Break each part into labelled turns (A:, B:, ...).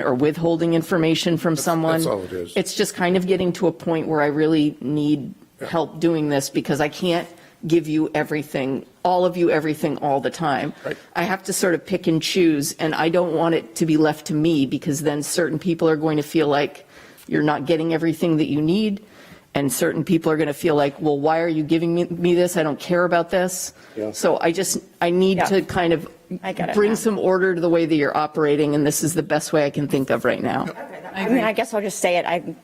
A: or withholding information from someone.
B: that's all it is.
A: It's just kind of getting to a point where I really need help doing this because I can't give you everything, all of you everything all the time.
B: Right.
A: I have to sort of pick and choose, and I don't want it to be left to me because then certain people are going to feel like you're not getting everything that you need. And certain people are going to feel like, well, why are you giving me, me this? I don't care about this.
B: Yeah.
A: So I just, I need
C: Yeah.
A: to kind of
C: I get it
A: bring
C: now.
A: some order to the way that you're operating, and this is the best way I can think of right now.
C: I mean, I guess I'll just say it. I,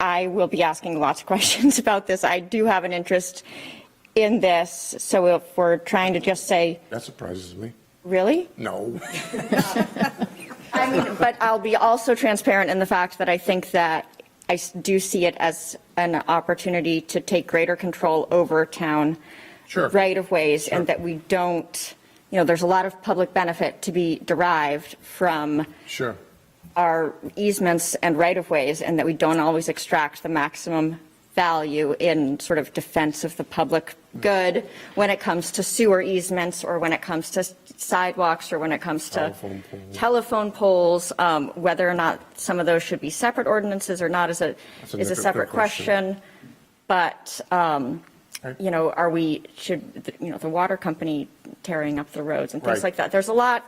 C: I will be asking lots of questions about this. I do have an interest in this. So if we're trying to just say,
B: That surprises me.
C: really?
B: No.
C: I mean, but I'll be also transparent in the fact that I think that I s- do see it as an opportunity to take greater control over town
B: Sure.
C: right of ways and that we don't, you know, there's a lot of public benefit to be derived from
B: Sure.
C: our easements and right of ways and that we don't always extract the maximum value in sort of defense of the public good when it comes to sewer easements or when it comes to sidewalks or when it comes to
B: Telephone poles.
C: telephone poles, um, whether or not some of those should be separate ordinances or not is a,
B: That's a
C: is a
B: different
C: separate
B: question.
C: question. But, um,
B: Right.
C: you know, are we, should, you know, the water company tearing up the roads and things
B: Right.
C: like that. There's a lot,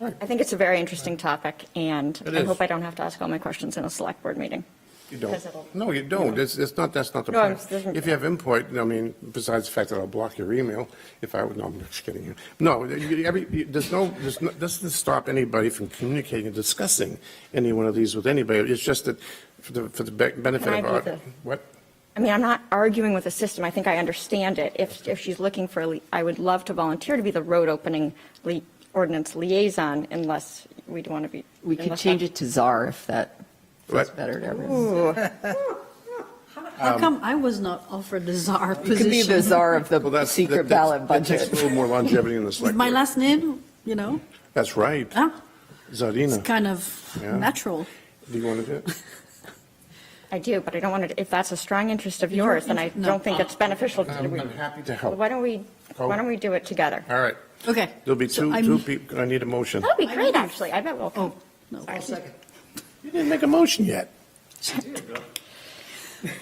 B: Right.
C: I think it's a very interesting topic, and
B: It
C: I
B: is.
C: hope I don't have to ask all my questions in a select board meeting.
B: You
C: Because
B: don't.
C: it'll-
B: No, you don't. It's, it's not, that's not the
C: No, I'm-
B: point.
C: doesn't-
B: If you have input, I mean, besides the fact that I'll block your email, if I, no, I'm just kidding you. No, you- every, you- there's no, there's no, doesn't stop anybody from communicating and discussing any one of these with anybody. It's just that for the, for the be- benefit
C: Can I
B: of
C: be
B: our,
C: the-
B: what?
C: I mean, I'm not arguing with the system, I think I understand it. If, if she's looking for, a li- I would love to volunteer to be the road opening li- ordinance liaison unless we'd want to be.
A: We could
C: unless
A: change
C: that-
A: it to czar if that feels
B: What?
A: better to everyone.
D: How come I was not offered the czar
A: Um, You could be the
D: position?
A: czar of
B: Well,
A: the
B: that's-
A: secret
B: that- that's-
A: ballot
B: That takes a
A: budget.
B: little more longevity in the
D: With
B: select
D: my
B: board.
D: last name, you know,
B: That's right.
D: huh? it's
B: Zarina,
D: kind of
B: Yeah.
D: natural.
B: do you want to do it?
C: I do, but I don't want to, if that's a strong interest of
D: Your
C: yours, then I
D: interest- no.
C: don't think it's beneficial. to-
B: I'm I'm happy to help.
C: Why don't we,
B: Go.
C: why don't we do it together?
B: All right.
D: Okay.
B: There'll be
D: So
B: two,
D: I'm-
B: two people, I need a motion.
C: That'd be
D: I
C: great,
D: don't-
C: actually, I bet we'll.
D: Oh, no.
C: Sorry.
B: You didn't make a motion yet.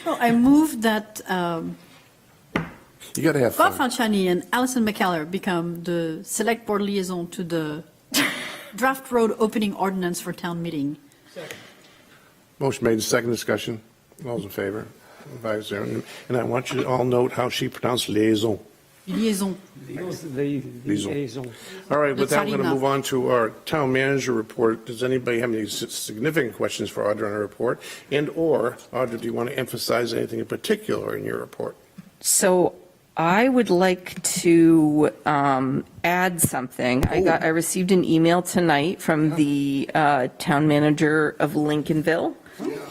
D: So I moved that um,
B: You got to have
D: Bob
B: fun.
D: Fanchani and Alison McKellar become the select board liaison to the draft road opening ordinance for town meeting.
B: Motion made, second discussion. All those in favor? Five zero. And I want you to all note how she pronounced liaison.
D: Liaison.
E: The
B: Liaison.
E: liaison.
B: All right, with that, we're going to
D: Lieutenant.
B: move on to our town manager report. Does anybody have any s- significant questions for Audra on her report? And/or, Audra, do you want to emphasize anything in particular in your report?
A: So I would like to um, add something. I got, I received an email tonight from the uh, town manager of Lincolnville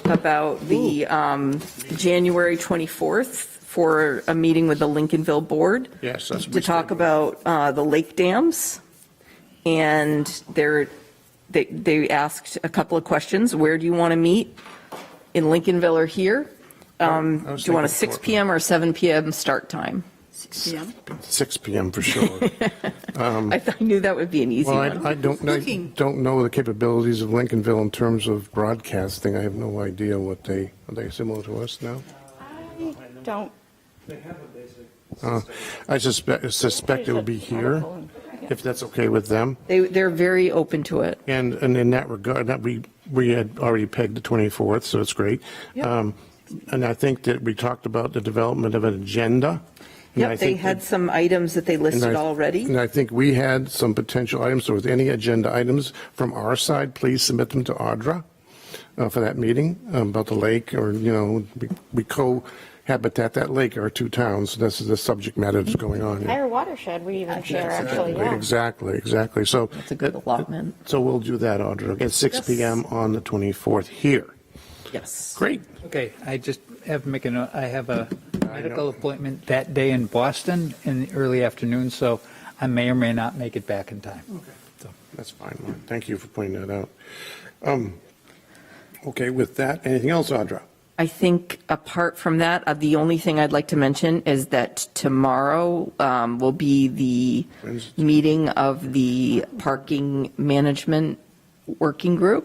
A: about the um, January 24th for a meeting with the Lincolnville Board.
B: Yes, that's what we
A: To talk
B: said.
A: about uh, the lake dams. And they're, they, they asked a couple of questions. Where do you want to meet? In Lincolnville or here? Um,
B: I was
A: Do you want a
B: thinking
A: 6
B: Portland.
A: PM or 7 PM start time?
D: 6 PM.
B: 6 PM for sure.
A: I th- I knew that would be an easy
B: Um, Well, I
A: one.
B: I don't, I
D: Looking.
B: don't know the capabilities of Lincolnville in terms of broadcasting. I have no idea what they, are they similar to us now?
C: I Don't.
B: Uh, I suspect, suspect it would be here, if that's okay with them.
A: They, they're very open to it.
B: And, and in that regard, that we, we had already pegged the 24th, so it's great. Um, And I think that we talked about the development of an agenda. and I
A: Yep, they
B: think
A: had
B: that-
A: some items that they
B: and
A: listed
B: I-
A: already.
B: And I think we had some potential items, so with any agenda items from our side, please submit them to Audra uh, for that meeting um, about the lake, or, you know, we- we cohabitat that lake, our two towns, this is the subject matter that's going on.
C: Higher watershed, we even share, actually, yeah.
B: Exactly, exactly, so. uh,
A: That's a good allotment.
B: So we'll do that, Audra, at 6
A: Yes.
B: PM on the 24th here.
A: Yes.
B: Great.
E: Okay, I just have, make a note, I have a
B: know.
E: medical appointment that day in Boston in the early afternoon, so I may or may not make it back in time.
B: That's fine, Mark. Thank you for pointing that out. Um, Okay, with that, anything else, Audra?
A: I think apart from that, uh, the only thing I'd like to mention is that tomorrow um, will be the
B: Wednesday.
A: meeting of the Parking Management Working Group.